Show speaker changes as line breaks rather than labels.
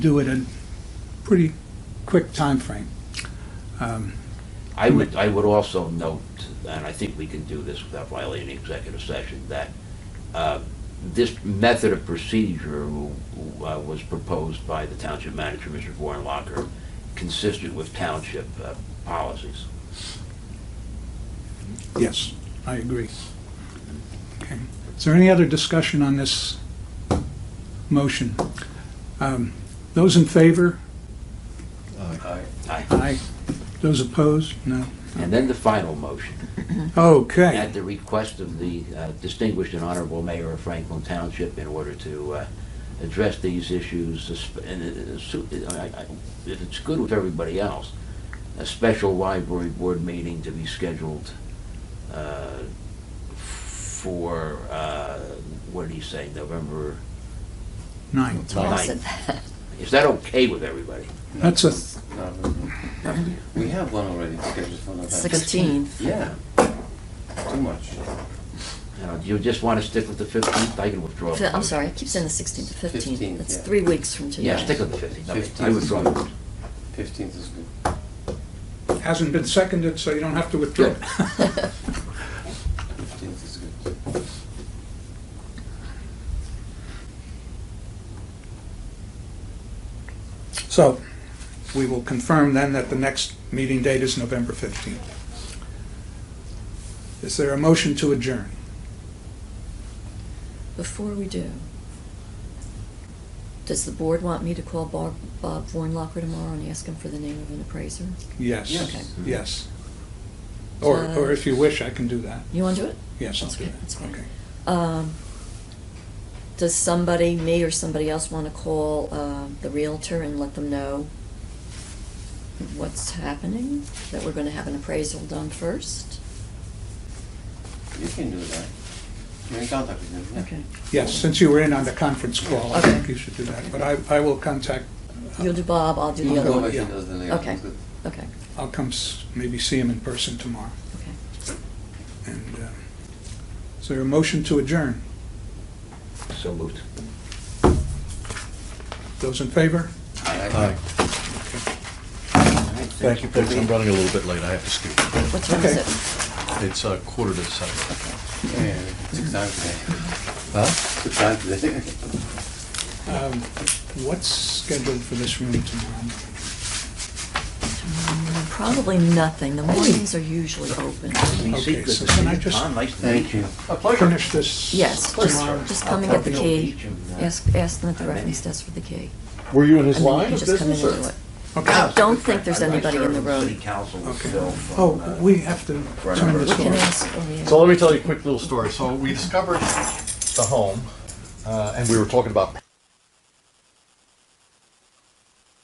do it in pretty quick timeframe. Um,
I would, I would also note, and I think we can do this without violating executive session, that uh, this method of procedure uh, was proposed by the township manager, Mr. Warnlocker, consistent with township uh, policies.
Yes, I agree. Okay. Is there any other discussion on this motion? Um, Those in favor?
Aye.
Aye. Those opposed? No.
And then the final motion,
Okay.
at the request of the uh, distinguished and honorable mayor of Franklin Township in order to uh, address these issues, esp- and uh, su- I- I- if it's good with everybody else, a special library board meeting to be scheduled uh, for, uh, what did he say, November
Nine.
Aye.
Yes,
Is that okay with everybody?
That's a, th-
No, no, no. We have one already scheduled for November.
16th.
Yeah. Too much.
Now, Uh, Do you just want to stick with the 15th? I can withdraw.
Fi- I'm sorry, I keep saying the 16th to 15th.
15th,
That's
yeah.
three weeks from today.
Yeah, stick with the 15th. Okay, I
15th.
withdraw.
Fifteenth is good.
hasn't been seconded, so you don't have to withdraw.
Fifteenth is good.
So we will confirm then that the next meeting date is November 15th. Is there a motion to adjourn?
Before we do, does the board want me to call Bob, Bob Vornlocker tomorrow and ask him for the name of an appraiser?
Yes,
Okay.
yes. Or,
Uh,
or if you wish, I can do that.
You want to do it?
Yes, I'll
That's
do
good, that's
that.
fine.
Okay.
Um, does somebody, me or somebody else, want to call, uh, the Realtor and let them know what's happening? That we're gonna have an appraisal done first?
You can do that. You're in contact with him, yeah.
Okay.
Yes, since you were in on the conference call, I
Okay.
think you should do that. But I, I will contact, uh,
You'll do Bob, I'll do
You
the
can
other
go
one.
if he
yeah.
does the layout.
Okay,
It's good.
okay,
I'll come s- maybe see him in person tomorrow.
okay.
And uh, is there a motion to adjourn?
So moved.
Those in favor?
Aye.
Hi. Thank you, folks. I'm running a little bit late. I have to scoot.
What time is
Okay.
it?
It's uh, quarter to seven.
Yeah, Six times today.
Huh?
Six times today.
Um, What's scheduled for this room tomorrow?
Mm, Probably nothing. The mornings are usually open.
Okay, so can I just
Thank you.
finish this?
Yes, just,
tomorrow?
just come and get the key. Ask, ask them at the reference desk for the key.
Were you in
And then you can just come in and do it. I
Okay.
don't think there's anybody in the room.
Okay. Oh, we have to turn
We
this
can
off.
ask, oh, yeah.
So let me tell you a quick little story. So we discovered the home, uh, and we were talking about